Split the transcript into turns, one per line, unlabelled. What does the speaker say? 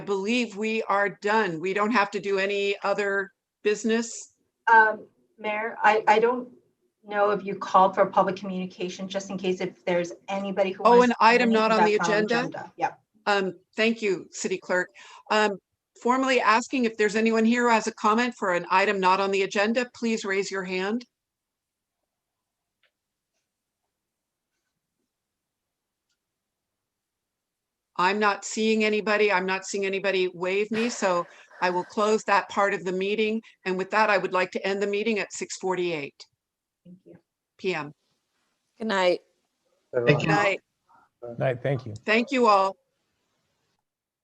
I believe we are done. We don't have to do any other business.
Um, Mayor, I, I don't know if you called for public communication, just in case if there's anybody who.
Oh,
wants
an
to say
item not
anything
on the
that's
agenda?
Yeah,
Um, thank you, City Clerk. Um, formally asking if there's anyone here who has a comment for an item not on the agenda, please raise your hand. I'm not seeing anybody. I'm not seeing anybody wave me, so I will close that part of the meeting. And with that, I would like to end the meeting at 6:48
thank you.
PM.
Good night.
Good night.
Right, thank you.
Thank you all.